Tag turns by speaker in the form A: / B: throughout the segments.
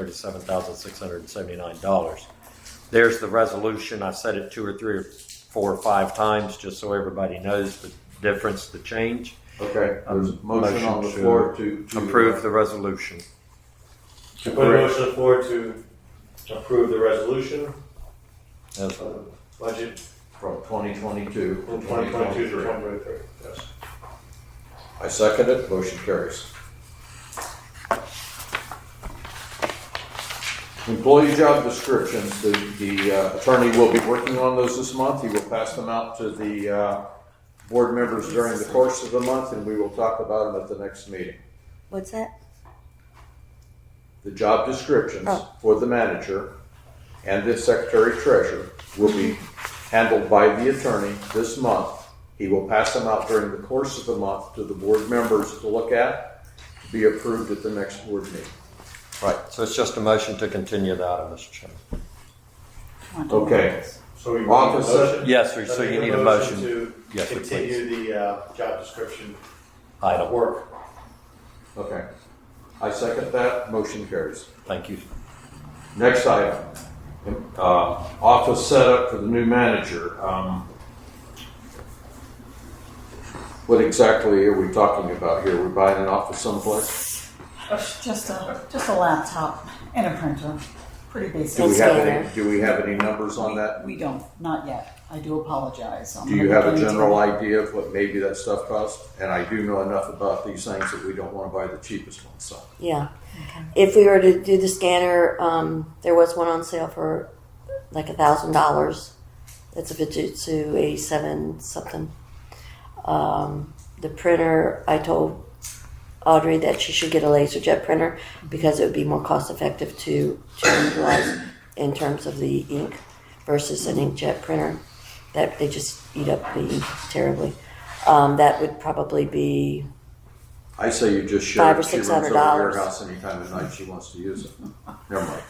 A: thirty-seven thousand six hundred and seventy-nine dollars. There's the resolution. I said it two or three or four or five times, just so everybody knows the difference, the change.
B: Okay, there's a motion
A: Motion
B: on the
A: to
B: floor to. to, uh,
A: Approve the resolution.
C: To put a motion on the floor to approve the resolution,
A: Yes.
C: uh, budget
B: From twenty twenty-two.
C: from twenty twenty-two to twenty twenty-three. Yes.
B: I second it, motion carries. Employee job descriptions, the, the uh, attorney will be working on those this month. He will pass them out to the, uh, board members during the course of the month, and we will talk about them at the next meeting.
D: What's that?
B: The job descriptions
D: Oh.
B: for the manager and the secretary treasurer will be handled by the attorney this month. He will pass them out during the course of the month to the board members to look at, to be approved at the next board meeting.
A: Right, so it's just a motion to continue the item, Mr. Chairman.
B: Okay,
C: So we want a
B: Office
C: motion.
A: Yes, sir, so you need a motion.
C: To
A: Yes, sir,
C: continue the, uh, job description
A: Item,
C: work.
B: okay. I second that, motion carries.
A: thank you.
B: Next item, uh, office setup for the new manager. Um, What exactly are we talking about here? We're buying an office someplace?
E: Just a just a laptop and a printer, pretty
B: Do
E: basic.
B: we
D: Let's
B: have
D: go
B: any,
D: there.
B: do we have any numbers on that?
E: We don't, not yet. I do apologize. I'm
B: Do you
E: gonna
B: have a
E: look into
B: general
E: it.
B: idea of what maybe that stuff costs? And I do know enough about these things that we don't want to buy the cheapest one, so.
D: Yeah. If we were to do the scanner, um, there was one on sale for like a thousand dollars. That's a Fujitsu eighty-seven something. Um, the printer, I told Audrey that she should get a LaserJet printer because it would be more cost-effective to to utilize in terms of the ink versus an inkjet printer. That they just eat up the ink terribly. Um, that would probably be
B: I say you just show.
D: Five or
B: she runs
D: six
B: over
D: hundred
B: to your
D: dollars.
B: House anytime at night she wants to use it. Never mind.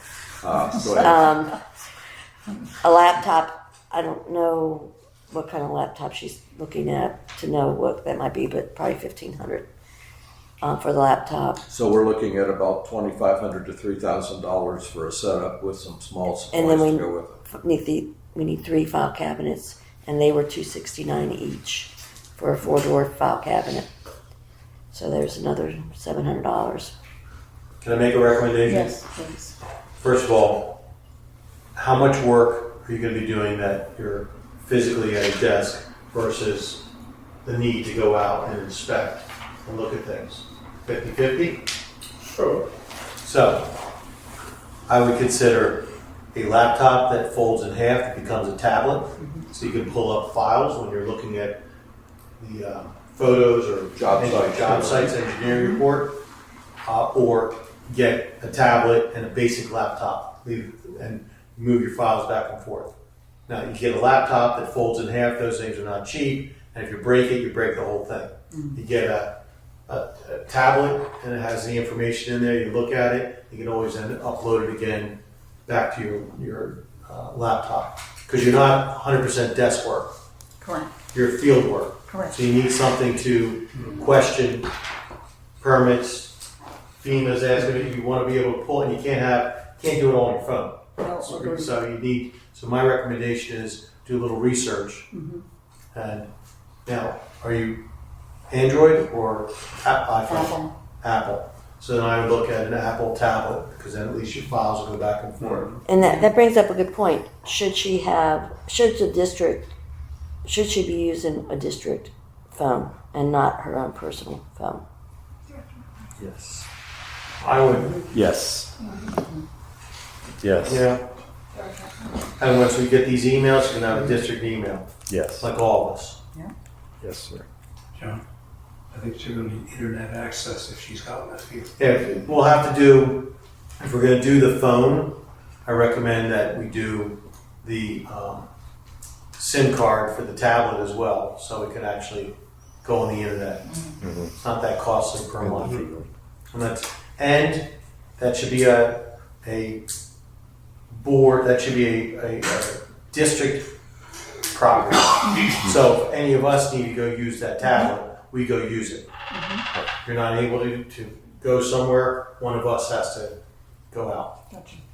B: Uh, go ahead.
D: um, a laptop. I don't know what kind of laptop she's looking at to know what that might be, but probably fifteen hundred uh, for the laptop.
B: So we're looking at about twenty-five hundred to three thousand dollars for a setup with some small
D: And then
B: supplies to
D: we-
B: go with it.
D: Need the, we need three file cabinets, and they were two sixty nine each for a four door file cabinet. So there's another seven hundred dollars.
C: Can I make a recommendation?
E: Yes, please.
C: First of all, how much work are you gonna be doing that you're physically at a desk versus the need to go out and inspect and look at things? Fifty-fifty? Sure. So, I would consider a laptop that folds in half, that becomes a tablet,
B: Mm-hmm.
C: so you can pull up files when you're looking at the uh, photos or
B: Job sites. Mm-hmm.
C: job sites engineering report, uh, or get a tablet and a basic laptop, leave and move your files back and forth. Now you get a laptop that folds in half; those things are not cheap, and if you break it, you break the whole thing.
B: Mm-hmm.
C: You get a a, a tablet and it has the information in there. You look at it. You can always then upload it again back to your your uh, laptop because you're not 100% desk work.
E: Correct.
C: You're field work.
E: Correct.
C: So you need something to question permits. FEMA's asking if you want to be able to pull, and you can't have can't do it all on your phone.
E: No,
C: So-
E: agreed.
C: So you need, so my recommendation is do a little research. And now, are you Android or a- iPhone?
E: Apple.
C: Apple. So then I would look at an Apple tablet because then at least your files will go back and forth.
D: And that, that brings up a good point. Should she have, should the district, should she be using a district phone and not her own personal phone?
A: Yes.
C: I would,
A: Yes. Yes,
C: yeah. And once we get these emails, you can have a district email,
A: yes,
C: like all of us.
A: yes, sir.
F: John, I think she's gonna need internet access if she's got one of you.
C: Yeah, we'll have to do, if we're gonna do the phone, I recommend that we do the, um, SIM card for the tablet as well, so it can actually go on the internet. It's not that costly per month. And that's, and that should be a, a board, that should be a, a, a district property. So if any of us need to go use that tablet, we go use it. If you're not able to, to go somewhere, one of us has to
G: go out.
C: Gotcha.